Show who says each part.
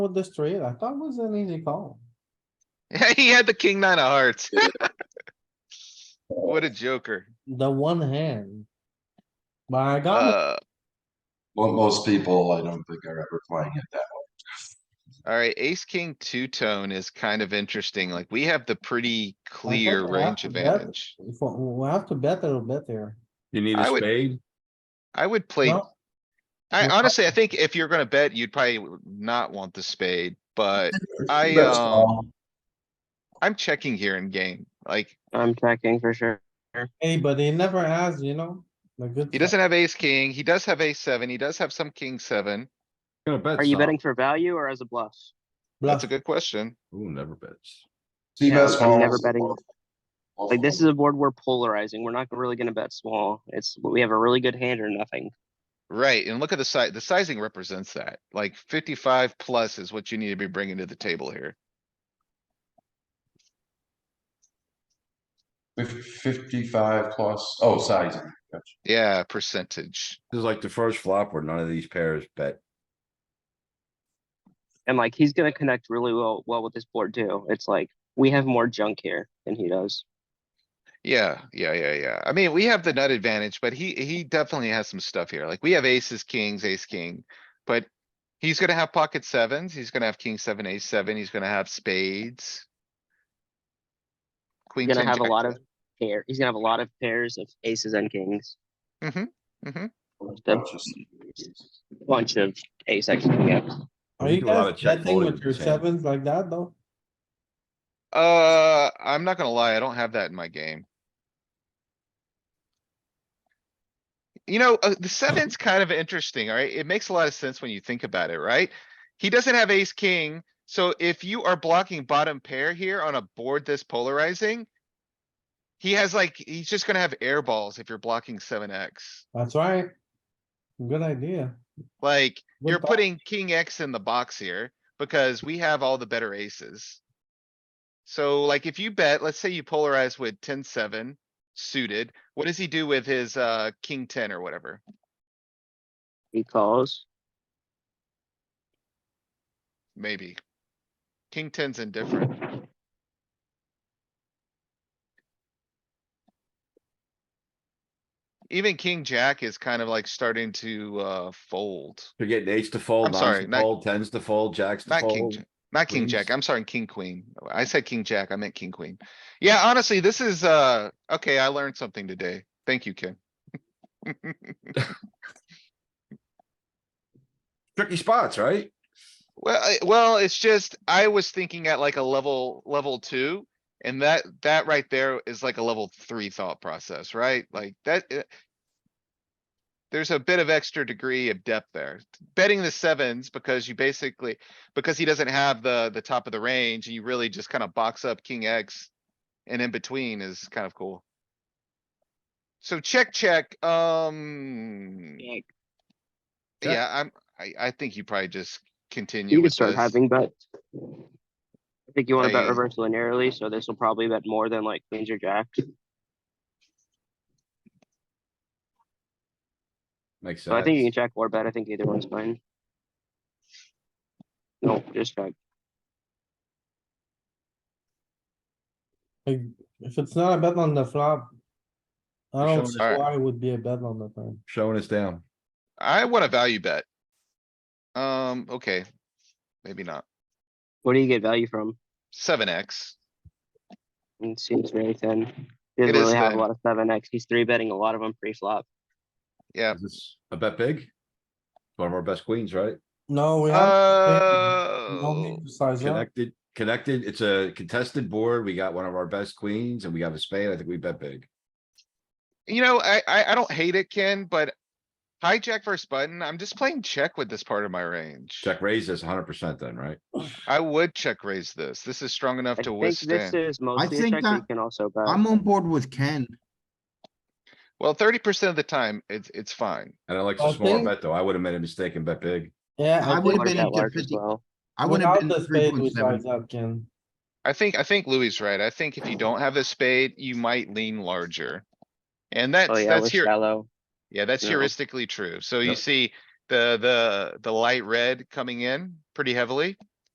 Speaker 1: with the straight, I thought it was an easy call.
Speaker 2: He had the king nine of hearts. What a joker.
Speaker 1: The one hand. But I got, it.
Speaker 2: Uh,
Speaker 3: Well, most people, I don't think are ever playing it that
Speaker 2: alright, ace, king, two tone is kind of interesting. Like, we have the pretty clear
Speaker 1: I have
Speaker 2: range
Speaker 1: to bet.
Speaker 2: advantage.
Speaker 1: If we we have to bet a little bit there.
Speaker 4: You need a
Speaker 2: I would-
Speaker 4: spade?
Speaker 2: I would play,
Speaker 1: No?
Speaker 2: I
Speaker 1: Well, I-
Speaker 2: honestly, I think if you're gonna bet, you'd probably not want the spade, but
Speaker 3: way.
Speaker 2: I,
Speaker 3: That's
Speaker 2: um,
Speaker 3: all.
Speaker 2: I'm checking here in game. Like,
Speaker 5: I'm checking for sure.
Speaker 1: Hey, but he never has, you know, the good.
Speaker 2: he
Speaker 1: side.
Speaker 2: doesn't have ace, king. He does have ace seven. He does have some king seven.
Speaker 4: Gonna bet
Speaker 5: Are you
Speaker 4: some.
Speaker 5: betting for value or as a bluff?
Speaker 2: That's a
Speaker 1: Bluff.
Speaker 2: good question.
Speaker 4: Ooh, never bets.
Speaker 3: See,
Speaker 5: Yeah,
Speaker 3: best
Speaker 5: I'm
Speaker 3: balls.
Speaker 5: never betting. Like this is a board we're polarizing. We're not really gonna bet small. It's, we have a really good hand or nothing.
Speaker 2: Right, and look at the size, the sizing represents that, like fifty-five plus is what you need to be bringing to the table here.
Speaker 3: Fif- Fifty-five plus, oh, sizing. Gotcha.
Speaker 2: Yeah, percentage.
Speaker 4: This is like the first flop where none of these pairs bet.
Speaker 5: And like, he's gonna connect really well, well with this board too. It's like, we have more junk here than he does.
Speaker 2: Yeah, yeah, yeah, yeah. I mean, we have the nut advantage, but he, he definitely has some stuff here. Like, we have aces, kings, ace, king. But he's gonna have pocket sevens, he's gonna have king seven, ace seven, he's gonna have spades.
Speaker 5: He's
Speaker 2: Queen
Speaker 5: gonna
Speaker 2: ten,
Speaker 5: have a
Speaker 2: jack
Speaker 5: lot
Speaker 2: ten.
Speaker 5: of pair, he's gonna have a lot of pairs of aces and kings.
Speaker 2: Mhm, mhm.
Speaker 5: The bunch of ace X, yeah.
Speaker 1: Are
Speaker 4: We
Speaker 1: you
Speaker 4: do a lot
Speaker 1: guys
Speaker 4: of check
Speaker 1: betting
Speaker 4: folding
Speaker 1: with
Speaker 4: with
Speaker 1: your
Speaker 4: this hand.
Speaker 1: sevens like that though?
Speaker 2: Uh, I'm not gonna lie, I don't have that in my game. You know, uh, the seven's kind of interesting, alright? It makes a lot of sense when you think about it, right? He doesn't have ace, king, so if you are blocking bottom pair here on a board this polarizing. He has like, he's just gonna have air balls if you're blocking seven X.
Speaker 1: That's right. Good idea.
Speaker 2: Like,
Speaker 1: Good
Speaker 2: you're
Speaker 1: thought.
Speaker 2: putting king X in the box here because we have all the better aces. So like if you bet, let's say you polarize with 10-7 suited, what does he do with his uh king ten or whatever?
Speaker 5: He calls.
Speaker 2: Maybe. King ten's indifferent. Even king jack is kind of like starting to uh fold.
Speaker 4: You're getting eights to fold,
Speaker 2: I'm
Speaker 4: nines
Speaker 2: sorry,
Speaker 4: to
Speaker 2: not-
Speaker 4: fold, tens to fold, jacks to
Speaker 2: Not king,
Speaker 4: fold.
Speaker 2: j- not king jack,
Speaker 4: queens.
Speaker 2: I'm sorry, king queen. I said king jack, I meant king queen. Yeah, honestly, this is, uh, okay, I learned something today. Thank you, Ken.
Speaker 4: Tricky spots, right?
Speaker 2: Well, I, well, it's just, I was thinking at like a level, level two. And that, that right there is like a level three thought process, right? Like that. uh, There's a bit of extra degree of depth there. Betting the sevens because you basically, because he doesn't have the, the top of the range, you really just kind of box up king X. And in between is kind of cool. So check, check, um,
Speaker 5: You
Speaker 4: Check.
Speaker 2: yeah, I'm, I, I think you probably just continue
Speaker 5: can
Speaker 2: with
Speaker 5: start
Speaker 2: this.
Speaker 5: having bets. I think you wanna bet
Speaker 2: I-
Speaker 5: reverse linearly, so this will probably bet more than like queens or jacks.
Speaker 4: Makes
Speaker 5: So Oh, I think you can
Speaker 4: sense.
Speaker 5: check or bet. I think either one's fine. No, just check.
Speaker 1: Like, If it's not a bet on the flop. I
Speaker 4: You're
Speaker 1: don't
Speaker 4: showing
Speaker 1: see
Speaker 2: us-
Speaker 1: why it would be a bet on the turn.
Speaker 4: Showing us down.
Speaker 2: I want a value bet. Um, okay, maybe not.
Speaker 5: What do you get value from?
Speaker 2: Seven X.
Speaker 5: It seems very thin. He
Speaker 2: It
Speaker 5: doesn't
Speaker 2: is
Speaker 5: really have a
Speaker 2: thin.
Speaker 5: lot of seven X. He's three betting a lot of them pre-flop.
Speaker 2: Yeah.
Speaker 4: Is this a bet big? One of our best queens, right?
Speaker 1: No, we have. we don't
Speaker 2: Oh,
Speaker 1: need to Size up.
Speaker 4: Connected, connected. It's a contested board. We got one of our best queens and we have a spade. I think we bet big.
Speaker 2: you know, I, I, I don't hate it, Ken, but hijack versus button, I'm just playing check with this part of my range.
Speaker 4: Check raise this hundred percent then, right?
Speaker 2: I would check raise this. This is strong enough
Speaker 5: I
Speaker 2: to
Speaker 5: think this
Speaker 2: withstand.
Speaker 5: is mostly a
Speaker 6: think
Speaker 5: check. but You
Speaker 6: that-
Speaker 5: can also bet.
Speaker 6: I'm on board with Ken.
Speaker 2: Well, thirty percent of the time, it's, it's fine.
Speaker 4: And I like
Speaker 1: I
Speaker 4: the smaller
Speaker 1: think-
Speaker 4: bet though. I would have made a mistake and bet big.
Speaker 1: Yeah,
Speaker 6: I
Speaker 1: I
Speaker 6: would've
Speaker 1: think
Speaker 5: Wanna
Speaker 6: been
Speaker 5: bet
Speaker 6: into
Speaker 5: large as
Speaker 6: 50
Speaker 5: well.
Speaker 6: I would have
Speaker 1: without
Speaker 6: been
Speaker 1: the
Speaker 6: three
Speaker 1: spade, we
Speaker 6: point seven.
Speaker 1: size up, Ken.
Speaker 2: I think, I think Louis is right. I think if you don't have a spade, you might lean larger. And
Speaker 5: Oh
Speaker 2: that's,
Speaker 5: yeah,
Speaker 2: that's
Speaker 5: with
Speaker 2: here.
Speaker 5: shallow.
Speaker 2: Yeah, that's
Speaker 5: No.
Speaker 2: heuristically true. So you
Speaker 4: Yep.
Speaker 2: see the, the, the light red coming in pretty heavily.